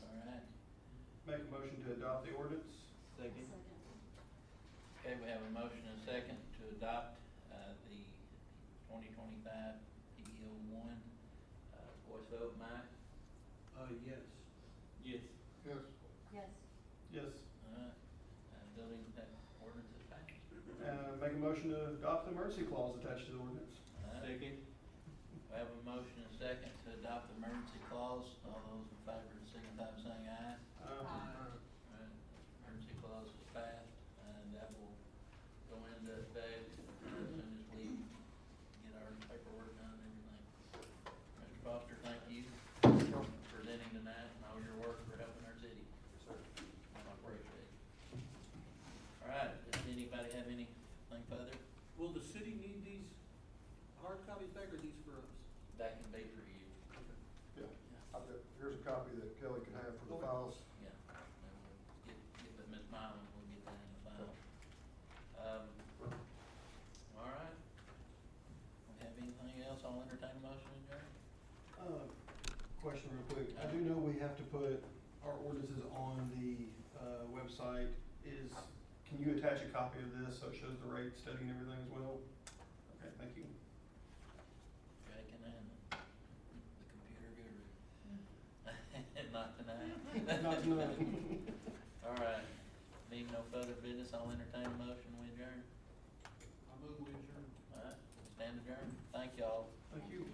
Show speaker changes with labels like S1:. S1: motion to adopt the ordinance?
S2: Second.
S3: Second.
S4: Okay, we have a motion and a second to adopt uh, the 2025 PEO-1. E Uh, Voice vote, Mike?
S2: Uh, yes. Yes.
S5: Yes.
S3: Yes.
S1: Yes.
S4: Alright, uh, Billy, that ordinance is passed.
S1: Uh, Make a motion to adopt the emergency clause attached to the ordinance?
S4: Alright,
S2: Second.
S4: We have a motion and a second to adopt the emergency clause. All those in favor signify by saying aye.
S1: Uh,
S4: Alright, Emergency clause is passed, and that will go into effect as soon as we get our paperwork done and everything. Mr. Foster, thank you for presenting tonight and all your work for helping our city. I appreciate it. All right, does anybody have anything further?
S2: Will the city need these hard copies back or these for us?
S4: That can be for you.
S5: Yeah, I've got, here's a copy that Kelly can have for the files.
S4: Yeah, and we'll get, get with Ms. Milam, we'll get that in the file. Um, all right. Don't have anything else, I'll entertain a motion, Jerry?
S1: uh, Question real quick. I do know we have to put our ordinances on the uh, website. Is, can you attach a copy of this so it shows the rate study and everything as well? Okay, thank you.
S4: Jay can handle it. the computer guru. Not tonight.
S1: Not tonight.
S4: All right, being no further business, I'll entertain a motion, we adjourn.
S2: I move with your.
S4: All right, stand adjourned, thank y'all.
S1: Thank you.